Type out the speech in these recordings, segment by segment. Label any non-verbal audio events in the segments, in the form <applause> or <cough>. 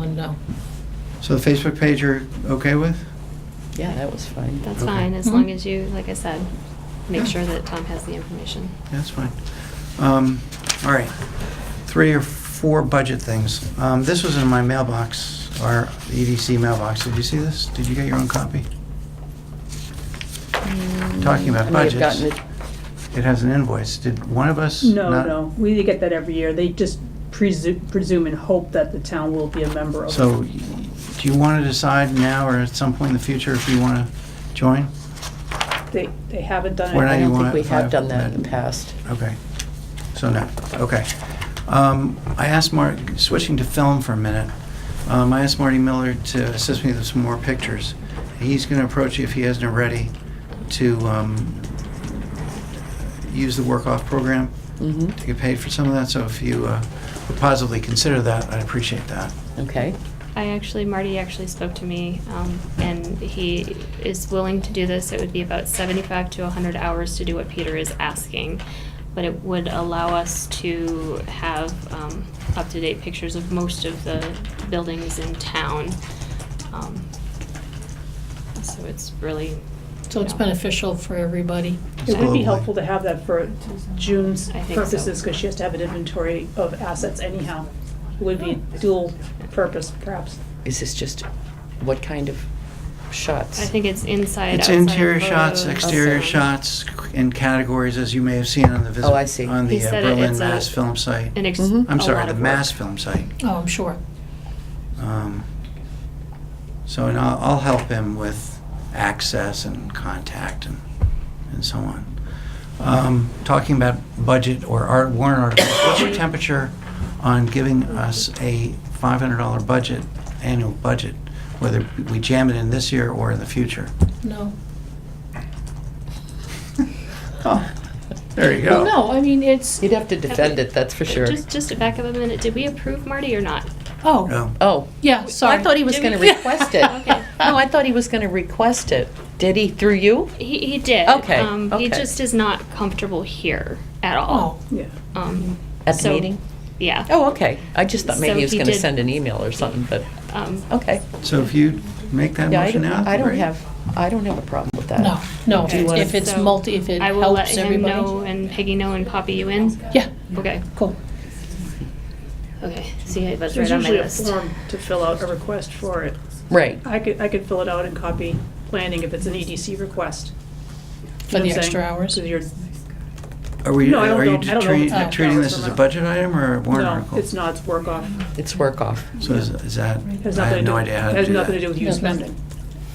know. So the Facebook page you're okay with? Yeah, that was fine. That's Okay. fine, as Mhm. long as you, like I said, Yeah. make sure that Tom has the information. Yeah, That's fine. Um, All right, three or four budget things. Um, This was in my mailbox, our EDC mailbox. Did you see this? Did you get your own copy? Talking about Mm, I may have budgets. gotten it- It has an invoice. Did one of us? No, not- no, we get that every year. They just presume, presume and hope that the town will be a member of it. So do you want to decide now or at some point in the future if you want to join? They, they haven't done We're it. not- I you don't want think we it have five done that in minute- the past. Okay. So no, okay. Um, I asked Mark, switching to film for a minute, um, I asked Marty Miller to assist me with some more pictures. He's gonna approach you if he hasn't already to, um, use the work-off program hmm to get paid for some of that, so if you, uh, would positively consider that, I'd appreciate that. okay. I actually, Marty actually spoke to me, um, and he is willing to do this. It would be about seventy-five to hundred hours to do what Peter is asking. But it would allow us to have, um, up-to-date pictures of most of the buildings in town. Um, So it's really. So it's you know, beneficial for everybody. It would Globally. be helpful to have that for June's I think so. purposes, because she has to have an inventory of assets anyhow. It would be dual purpose, perhaps. Is this just, what kind of shots? I think it's inside, It's outside. interior shots, photos. exterior Awesome. shots, and categories, as you may have seen on the visit. Oh, I see. On He the uh, said it- Berlin it's a- Mass Film Site. An ex- Mm-hmm. Mhm. I'm a sorry, lot the of Mass work. Film Site. Oh, I'm sure. Um, So, and I'll, I'll help him with access and contact and, and so on. Um, Talking about budget or art warrant articles, what's your temperature on giving us a $500 budget, annual budget, whether we jam it in this year or in the future? No. Oh, there you go. Well, Oh, no, I mean, it's, You'd have to defend it, that's for sure. Just, just to back up a minute, did we approve Marty or not? oh, No. Oh. yeah, sorry. I thought he was Did going to we- <laughs> request it. Okay. No, I thought he was going to request it. Did he, through you? He, he did. Okay, Um, okay. He just is not comfortable here at Oh, all. Yeah. Um, At the so- meeting? Yeah. Oh, okay. I just thought maybe So he was he going to did- send an email or something, but, Oh. Um, okay. So if you make that Yeah, I motion don't- now? I don't great. have, I don't have a problem with that. no, no, if Do you it's- wanna- if it's so multi, if it I will let helps him everybody. know and Peggy know and copy you in. Yeah, Okay. cool. Okay. See, I was right There's on my usually a list. form to fill out a request for it. Right. I could, I could fill it out and copy planning if it's an EDC request. For the extra hours? Because you're, Are we, No, I don't are you know. I don't know treat- if it's treating this as hours or a not. budget item or a warrant no, article? it's not, it's work off. It's work off. So is is that, I Has nothing to have do. no idea how to do that. Has nothing to do with you No. spending.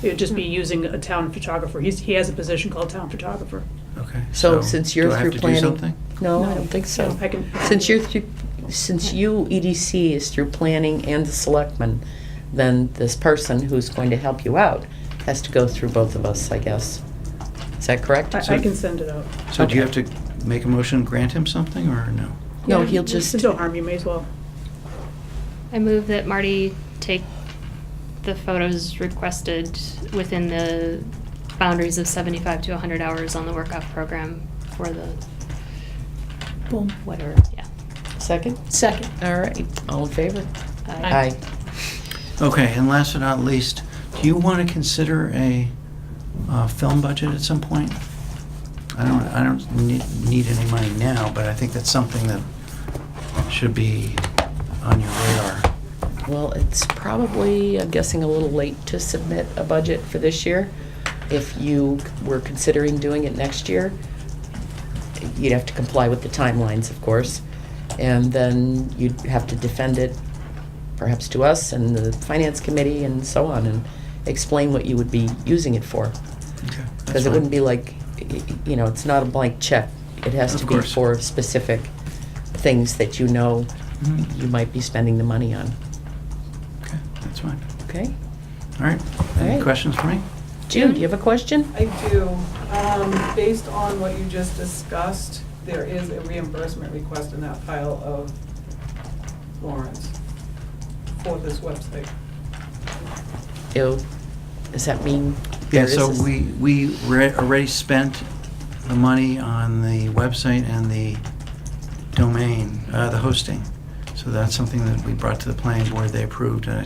It would just be using a town photographer. He's, he has a position called town photographer. Okay. So since you're through planning. Do I have to do something? No, I No. don't think so. No, I can- Since you're through, since you, EDC is through planning and the selectmen, then this person who's going to help you out has to go through both of us, I guess. Is that correct? I, I can send it out. So do you have Okay. to make a motion, grant him something, or no? No, Yeah, he'll just, There's no harm, you may as well. I move that Marty take the photos requested within the boundaries of 75 to 100 hours on the workout program for the Boom. whatever. Yeah. second? Second. All right, all in favor? Aye. Okay, and last but not least, do you want to consider a uh, film budget at some point? I don't, I don't need need any money now, but I think that's something that should be on your radar. Well, it's probably, I'm guessing, a little late to submit a budget for this year. If you were considering doing it next year, you'd have to comply with the timelines, of course. And then you'd have to defend it perhaps to us and the finance committee and so on and explain what you would be using it for. Okay, that's Because it fine. wouldn't be like, y- y- you know, it's not a blank check. It has to Of be course. for specific things that you know Mhm. you might be spending the money on, Okay, that's fine. okay? All right, any Alright. questions for me? June, do you have a question? I do. Um, Based on what you just discussed, there is a reimbursement request in that pile of warrants for this website. Ew. Does that mean? Yeah, there so is a- we, we re- already spent the money on the website and the domain, uh, the hosting. So that's something that we brought to the planning board, they approved, and I